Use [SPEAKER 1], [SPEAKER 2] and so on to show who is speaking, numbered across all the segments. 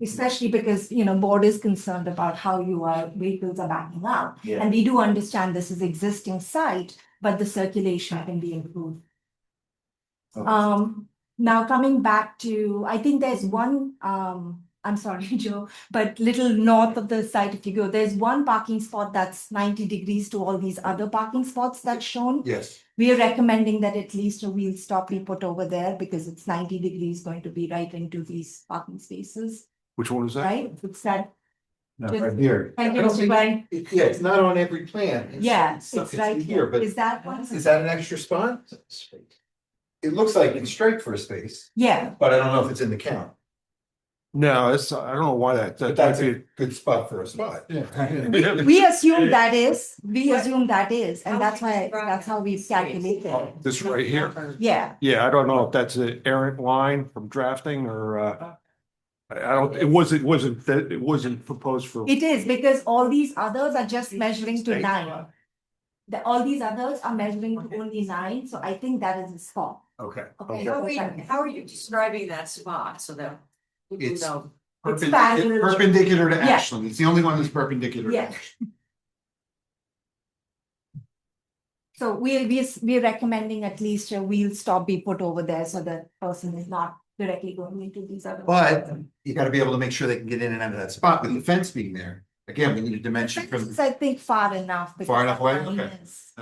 [SPEAKER 1] especially because, you know, board is concerned about how your vehicles are backing up.
[SPEAKER 2] Yeah,
[SPEAKER 1] And we do understand this is existing site, but the circulation can be improved.
[SPEAKER 2] Okay.
[SPEAKER 1] Um, now coming back to, I think there's
[SPEAKER 2] Mm-hmm.
[SPEAKER 1] one, um, I'm sorry, Joe, but little north of the site, if you go, there's one parking spot that's ninety degrees to all these other parking spots that's shown.
[SPEAKER 2] yes,
[SPEAKER 1] We are recommending that at least a wheel stop be put over there because it's ninety degrees going to be right into these parking spaces,
[SPEAKER 3] Which one is that?
[SPEAKER 1] right? It's that.
[SPEAKER 3] No,
[SPEAKER 1] just-
[SPEAKER 3] Right here.
[SPEAKER 1] Thank you,
[SPEAKER 2] I don't
[SPEAKER 1] Mr.
[SPEAKER 2] think-
[SPEAKER 1] Gray.
[SPEAKER 2] It- yeah, it's not on every plan. It's-
[SPEAKER 1] Yeah,
[SPEAKER 2] it's not-
[SPEAKER 1] it's right
[SPEAKER 2] in Here,
[SPEAKER 1] here.
[SPEAKER 2] but
[SPEAKER 1] Is that one?
[SPEAKER 2] is that an extra spot? It looks like it's straight for a space,
[SPEAKER 1] Yeah,
[SPEAKER 2] but I don't know if it's in the count,
[SPEAKER 3] No, that's, I don't know why that,
[SPEAKER 2] but
[SPEAKER 3] that
[SPEAKER 2] that's
[SPEAKER 3] might
[SPEAKER 2] a
[SPEAKER 3] be.
[SPEAKER 2] good spot for a spot.
[SPEAKER 3] Yeah.
[SPEAKER 1] we assume that is, we
[SPEAKER 4] Right.
[SPEAKER 1] assume that is, and
[SPEAKER 4] How
[SPEAKER 1] that's
[SPEAKER 4] much is
[SPEAKER 1] why,
[SPEAKER 4] Broadway
[SPEAKER 1] that's how we
[SPEAKER 4] space?
[SPEAKER 1] calculate it.
[SPEAKER 3] This right here.
[SPEAKER 1] Yeah,
[SPEAKER 3] Yeah, I don't know if that's an errant line from drafting or, uh, I I don't, it wasn't, wasn't, that it wasn't proposed for.
[SPEAKER 1] it is because all these others are just measuring to nine. The, all these others are measuring to only nine, so I think that is a spot.
[SPEAKER 2] Okay.
[SPEAKER 1] Okay.
[SPEAKER 4] How are we, how are you describing that spot so that people
[SPEAKER 2] It's-
[SPEAKER 4] know?
[SPEAKER 1] It's fabulous.
[SPEAKER 2] Perpendicular to
[SPEAKER 1] Yeah.
[SPEAKER 2] Ashland, it's the only one that's perpendicular. to
[SPEAKER 1] Yeah.
[SPEAKER 2] Ashland.
[SPEAKER 1] So we'll, we, we're recommending at least a wheel stop be put over there so the person is not directly going into these other.
[SPEAKER 2] But you gotta be able to make sure they can get in and out of that spot with the fence being there. Again, we need a dimension
[SPEAKER 1] This
[SPEAKER 2] from.
[SPEAKER 1] is, I think, far enough. because
[SPEAKER 2] Far enough away?
[SPEAKER 1] the
[SPEAKER 2] Okay.
[SPEAKER 1] lines-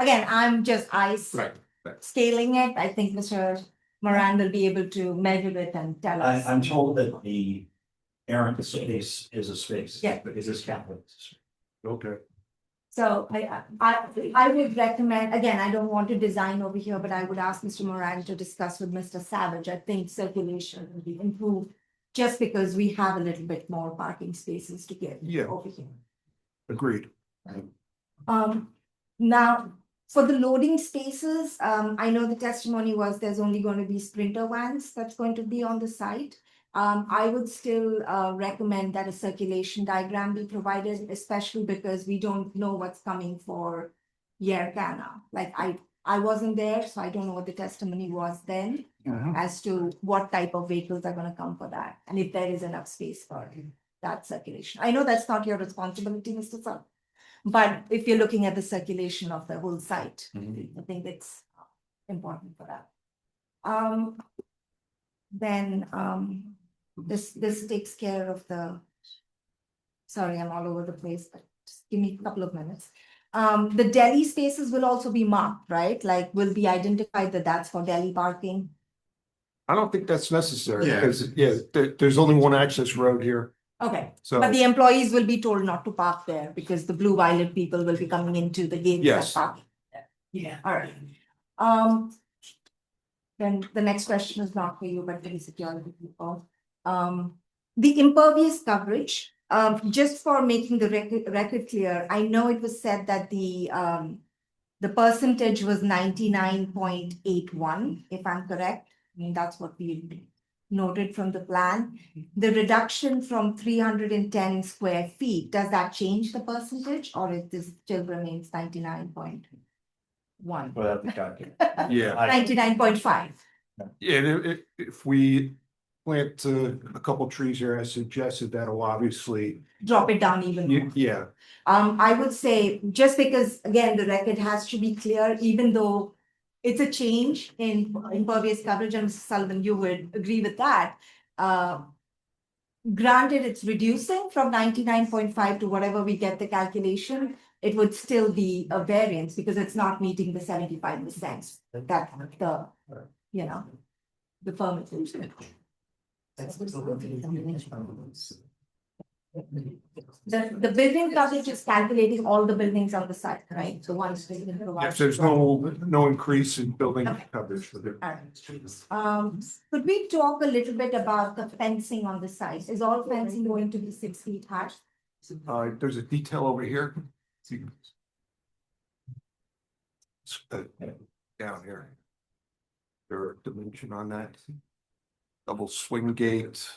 [SPEAKER 1] Again, I'm just ice
[SPEAKER 2] Right,
[SPEAKER 1] scaling it. I think Mr. Moran will be able to measure it and tell
[SPEAKER 5] I,
[SPEAKER 1] us.
[SPEAKER 5] I'm told that the errant space is a space.
[SPEAKER 1] Yeah.
[SPEAKER 5] But is this capital?
[SPEAKER 3] Okay.
[SPEAKER 1] So I, I, I would recommend, again, I don't want to design over here, but I would ask Mr. Moran to discuss with Mr. Savage. I think circulation will be improved. Just because we have a little bit more parking spaces to get
[SPEAKER 3] Yeah.
[SPEAKER 1] over here.
[SPEAKER 3] Agreed.
[SPEAKER 1] Um, now, for the loading spaces, um, I know the testimony was there's only going to be sprinter vans that's going to be on the site. Um, I would still, uh, recommend that a circulation diagram be provided, especially because we don't know what's coming for Yerkana. Like I, I wasn't there, so I don't know what the testimony was then as to what type of vehicles are gonna come for that, and if there is enough space for that circulation. I know that's not your responsibility, Mr. Sun, but if you're looking at the circulation of the whole site, I think it's uh, important for that. Um, then, um, this, this takes care of the, sorry, I'm all over the place, but just give me a couple of minutes. Um, the deli spaces will also be marked, right? Like, will be identified that that's for deli parking.
[SPEAKER 3] I don't think that's necessary
[SPEAKER 2] Yeah.
[SPEAKER 3] because, yeah, there, there's only one access road here.
[SPEAKER 1] Okay,
[SPEAKER 3] So,
[SPEAKER 1] but the employees will be told not to park there because the blue violet people will be coming into the gates
[SPEAKER 3] Yes.
[SPEAKER 1] and parking.
[SPEAKER 4] Yeah.
[SPEAKER 1] All right. Um. Then the next question is not for you, but for the security people. Um, the impervious coverage, um, just for making the record, record clear, I know it was said that the, um. The percentage was ninety-nine point eight one, if I'm correct, I mean, that's what we noted from the plan. The reduction from three hundred and ten square feet, does that change the percentage or is this still remains ninety-nine point one?
[SPEAKER 5] Without the calculator.
[SPEAKER 3] yeah.
[SPEAKER 5] I-
[SPEAKER 1] Ninety-nine point five,
[SPEAKER 3] Yeah, and if, if we plant uh, a couple trees here, I suggested that'll obviously,
[SPEAKER 1] drop it down even more.
[SPEAKER 3] you- yeah,
[SPEAKER 1] Um, I would say, just because, again, the record has to be clear, even though it's a change in impervious coverage, and Mr. Sullivan, you would agree with that. Uh, Granted, it's reducing from ninety-nine point five to whatever we get the calculation, it would still be a variance because it's not meeting the seventy-five percent that the, you know, the permit. The, the building coverage is calculating all the buildings on the site, right? The ones. that you provide.
[SPEAKER 3] if there's no, no increase in building
[SPEAKER 1] Okay.
[SPEAKER 3] coverage for the.
[SPEAKER 1] All right. Um, could we talk a little bit about the fencing on the site? Is all fencing going to be six feet high?
[SPEAKER 3] Uh, there's a detail over here. It's, uh, Down here. There are dimension on that. Double swing gate.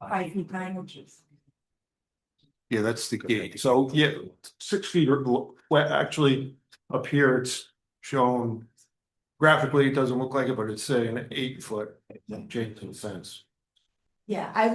[SPEAKER 1] Five feet nine inches.
[SPEAKER 3] Yeah, that's the gate. So, yeah, six feet or, lo- well, actually, up here, it's shown. Graphically, it doesn't look like it, but it's saying eight foot change to the fence.
[SPEAKER 1] Yeah, I